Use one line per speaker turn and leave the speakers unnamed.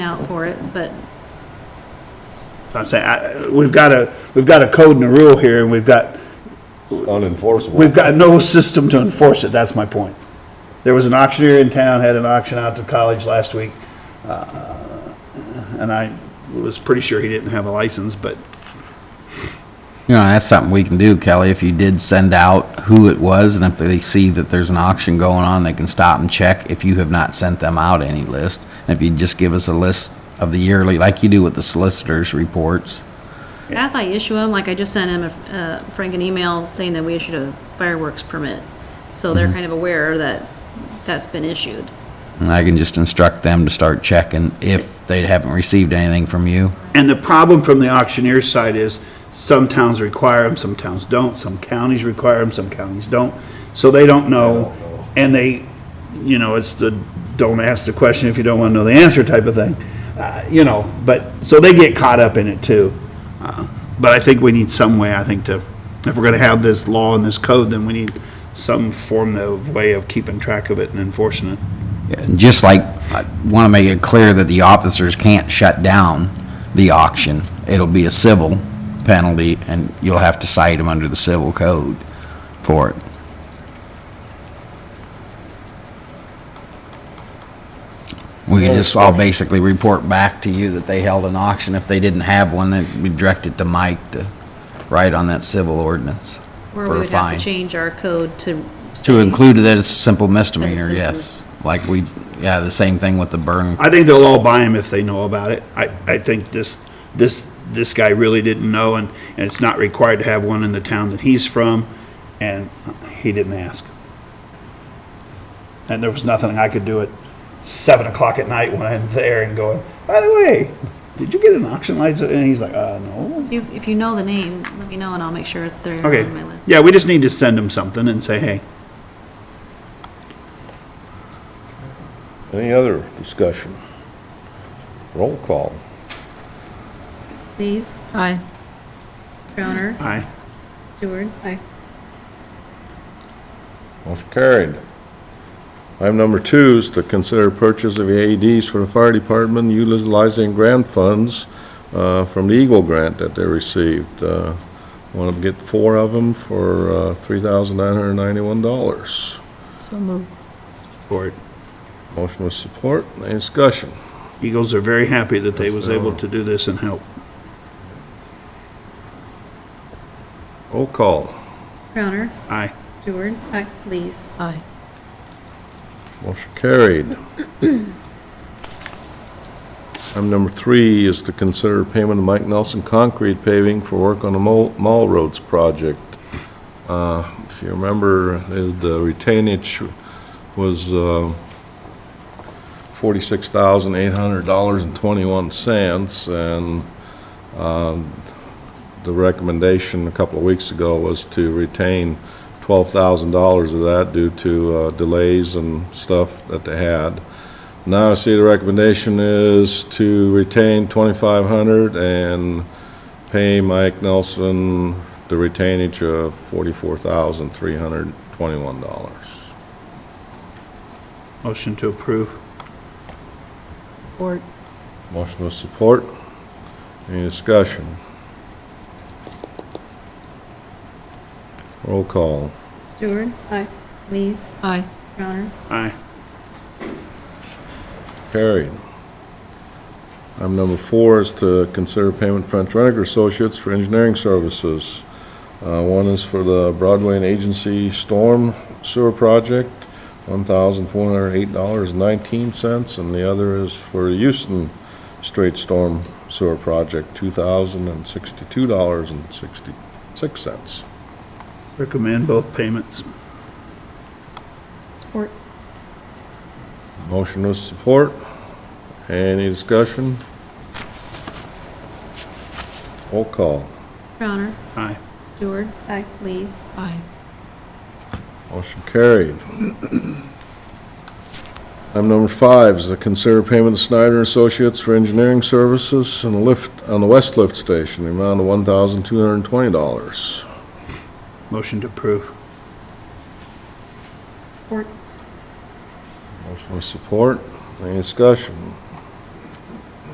out for it, but
I'm saying, I, we've got a, we've got a code and a rule here, and we've got, we've
unenforceable.
got no system to enforce it, that's my point. There was an auctioneer in town, had an auction out to college last week, uh, and I was pretty sure he didn't have a license, but
You know, that's something we can do, Kelly, if you did send out who it was, and if they see that there's an auction going on, they can stop and check if you have not sent them out any list. And if you just give us a list of the yearly, like you do with the solicitors' reports.
as I issue them, like I just sent him, a- uh, Frank, an email saying that we issued a fireworks permit. So they're kind of aware that that's been issued.
And I can just instruct them to start checking if they haven't received anything from you.
And the problem from the auctioneer's side is, some towns require them, some towns don't, some counties require them, some counties don't. So they don't know, and they, you know, it's the, don't ask the question if you don't wanna know the answer type of thing. Uh, You know, but, so they get caught up in it too. Uh, But I think we need some way, I think, to, if we're gonna have this law and this code, then we need some form of way of keeping track of it and enforcing it.
And Just like, I want to make it clear that the officers can't shut down the auction. It'll be a civil penalty, and you'll have to cite them under the civil code for it. We could just all basically report back to you that they held an auction. If they didn't have one, then we direct it to Mike to write on that civil ordinance
Or
for
we
a
would have
fine.
to change our code to.
To
say-
include that it's a simple misdemeanor,
simple-
yes. Like we, yeah, the same thing with the burn
I think they'll all buy them if they know about it. I, I think this, this, this guy really didn't know, and, and it's not required to have one in the town that he's from, and he didn't ask. And there was nothing I could do at seven o'clock at night when I'm there and going, by the way, did you get an auction license? And he's like, uh, no.
You- If you know the name, let me know and I'll make sure they're
Okay,
on my list.
yeah, we just need to send him something and say, hey,
Any other discussion? Roll call.
Please,
Aye.
Crowner,
I,
Stewart. Aye.
Motion carried. Item number two is to consider purchase of AEDs for the fire department utilizing grant funds uh, from the Eagle Grant that they received. Want to get four of them for uh, $3,991.
So moved.
or
Motion with support. Any discussion?
Eagles are very happy that they was able to do this and help.
Roll call.
Crowner,
I,
Stewart. Aye. Please.
Aye.
Motion carried. Item number three is to consider payment of Mike Nelson Concrete Paving for work on the Mall Mall Roads project. Uh, If you remember, uh, the retainage was uh, $46,800.21, and um, the recommendation a couple of weeks ago was to retain $12,000 of that due to uh, delays and stuff that they had. Now I see the recommendation is to retain 2,500 and pay Mike Nelson the retainage of $44,321.
motion to approve.
Support.
Motion with support. Any discussion? Roll call.
Stewart. Aye. Please,
Aye.
Crowner.
I,
Carried. Item number four is to consider payment from Trenick Associates for engineering services. Uh, One is for the Broadway and Agency Storm Sewer Project, $1,408.19, and the other is for the Houston Straight Storm Sewer Project, $2,062.66.
Recommend both payments.
Support.
Motion with support. Any discussion? Roll call.
Crowner,
Aye.
Stewart. Aye. Please.
Aye.
Motion carried. Item number five is to consider payment to Snyder and Associates for engineering services on the lift, on the west lift station, the amount of one thousand two hundred and twenty dollars.
Motion to approve.
Support.
Motion with support. Any discussion?